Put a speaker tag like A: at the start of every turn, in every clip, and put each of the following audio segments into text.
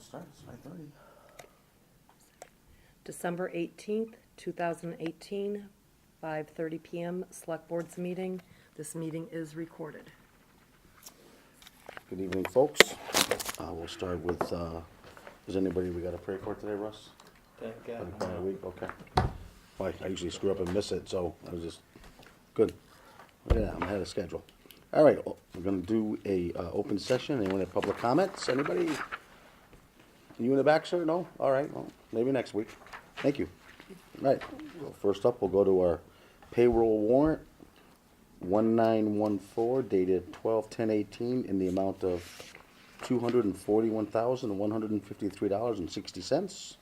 A: starts five thirty.
B: December eighteenth, two thousand eighteen, five thirty PM, Select Board's meeting. This meeting is recorded.
A: Good evening, folks. Uh, we'll start with, uh, is anybody we got a prayer for today, Russ?
C: Thank
A: Had a
C: God.
A: quiet week, okay. Well, I usually screw up and miss it, so I was just, good. Yeah, I'm ahead of schedule. All right, o- we're gonna do a, uh, open session. Anyone have public comments? Anybody? You in the back, sir? No? All right, well, maybe next week. Thank you. All right, well, first up, we'll go to our payroll warrant, one nine one four dated twelve ten eighteen in the amount of two hundred and forty-one thousand, one hundred and fifty-three dollars and sixty cents.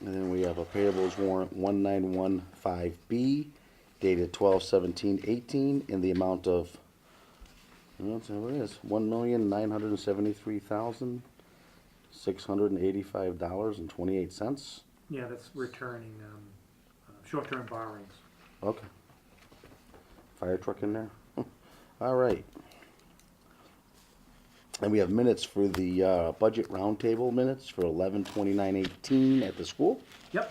A: And then we have a payables warrant one nine one five B dated twelve seventeen eighteen in the amount of, well, it's- what it is, one million nine hundred and seventy-three thousand, six hundred and eighty-five dollars and twenty-eight cents.
D: Yeah, that's returning, um, uh, short-term borrowings.
A: Okay. Fire truck in there? All right. And we have minutes for the, uh, budget roundtable minutes for eleven twenty-nine eighteen at the school.
D: Yep,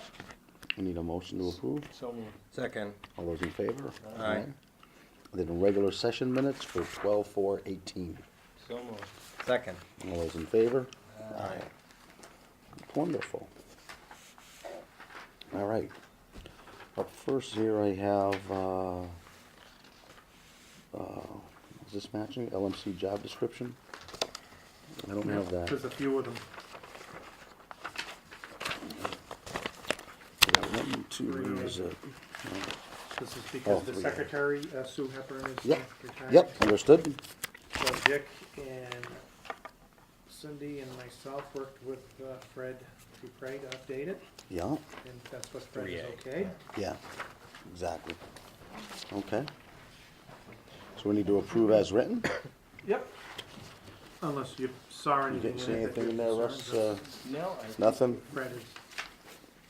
A: We need a motion to approve.
C: So moved.
E: Second.
A: All those in favor?
E: Aye.
A: Then regular session minutes for twelve four eighteen.
C: So moved.
E: Second.
A: All those in favor? Aye. Wonderful. All right. Up first here I have, uh, uh, is this matching LMC job description? I don't have that.
D: there's a few of them.
A: Yeah, One, two,
D: Three,
A: where is
D: I
A: it?
D: This is
A: Oh,
D: because the
A: we got it.
D: secretary, uh, Sue Hepburn, is
A: Yep,
D: retired.
A: yep, understood.
D: So Dick and Cindy and myself worked with uh, Fred Dupre to update it,
A: Yeah,
D: and that's what Fred
E: Three
D: is
E: A.
D: okay.
A: yeah, exactly. Okay. So we need to approve as written?
D: Yep. Unless you saw
A: You
D: anything.
A: didn't see
D: in it that
A: anything in
D: you're
A: there, Russ?
D: concerned
A: Uh,
D: with.
C: No, I. think
A: Nothing?
D: Fred is,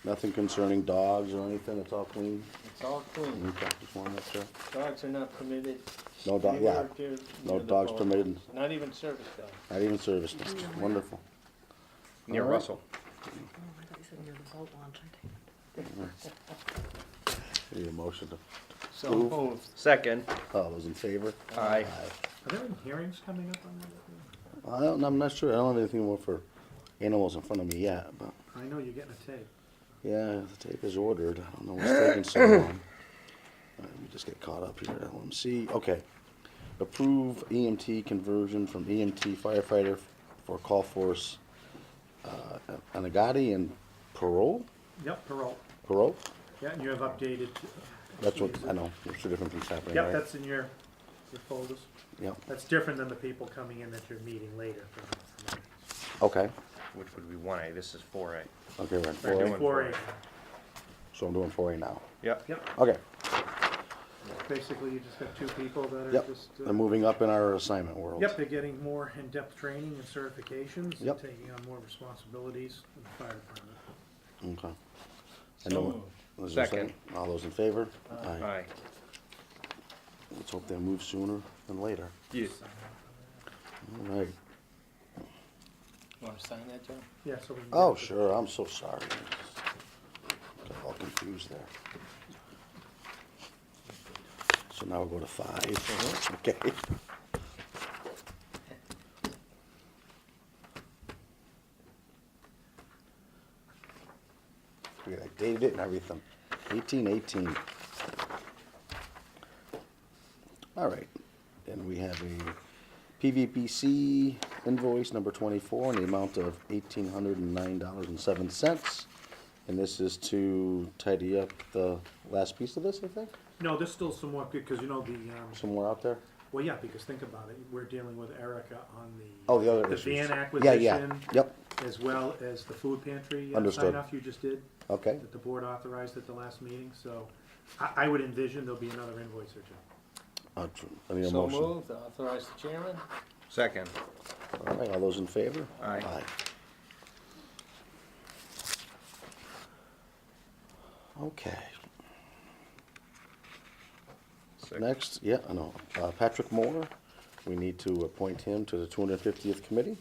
A: Nothing concerning dogs or anything, it's all clean?
C: It's all clean.
A: Okay, just wanted to make sure.
C: Dogs are not permitted.
A: No dog-
C: anywhere
A: yeah.
C: near-
A: No
C: near the
A: dogs
C: boat.
A: permitted.
C: Not even service dogs.
A: Not even service dogs, wonderful.
E: Near
A: All right.
E: Russell.
B: Oh,
A: Need a motion to,
C: So moved.
E: Second.
A: all those in favor?
E: Aye.
D: are there any hearings coming up on that?
A: I don't, I'm not sure, I don't have anything more for animals in front of me yet, but,
D: I know you're getting a tape.
A: yeah, the tape is ordered, I don't know what's taking so long. All right, Let me just get caught up here, LMC, okay. Approve EMT conversion from EMT firefighter for call force, uh, Anagati and parole,
D: Yep, parole.
A: parole?
D: Yeah, and you have updated. uh,
A: That's what, I know, there's two different things happening, right?
D: Yep, that's in your, your folders.
A: Yep,
D: That's different than the people coming in that you're meeting later. from- from-
A: okay,
E: Which would be one A, this is four A.
A: okay, we're at
E: We're
A: four A.
E: doing-
D: Four A,
A: So I'm doing four A now.
E: Yep.
D: yep.
A: Okay,
D: Basically, you just got two people that are
A: yep,
D: just. uh,
A: they're moving up in our assignment world.
D: Yep, they're getting more in-depth training and certifications.
A: Yep.
D: and Taking on more responsibilities in the fire department.
A: Okay. I
C: So
A: know-
C: moved.
A: is there a
E: Second.
A: All those in favor? Aye.
E: Aye.
A: Let's hope they move sooner than later.
E: Yes.
A: All right.
C: Want to sign that, John?
D: Yeah, so we can.
A: Oh,
D: get the-
A: sure, I'm so sorry. Got all confused there. So now we'll go to five, okay? We I dated it and everything, eighteen eighteen. All right, then we have a PVPC invoice number twenty-four in the amount of eighteen hundred and nine dollars and seven cents. And this is to tidy up the last piece of this, I think,
D: No, there's still some more, because you know the, um,
A: somewhere out there.
D: well, yeah, because think about it, we're dealing with Erica on the.
A: Oh, the other
D: The
A: issues.
D: van
A: Yeah, yeah,
D: acquisition.
A: yep,
D: As well as the food pantry. uh,
A: Understood.
D: Sign off you just did.
A: okay,
D: that the board authorized at the last meeting, so I, I would envision there'll be another invoice or two.
A: Uh, tr- I need a
C: So
A: motion.
C: moved, authorize the chairman.
E: Second.
A: All right, all those in favor?
E: Aye.
A: Okay,
E: Sec-
A: next, yeah, I know, uh, Patrick Moore, we need to appoint him to the two hundred and fiftieth committee.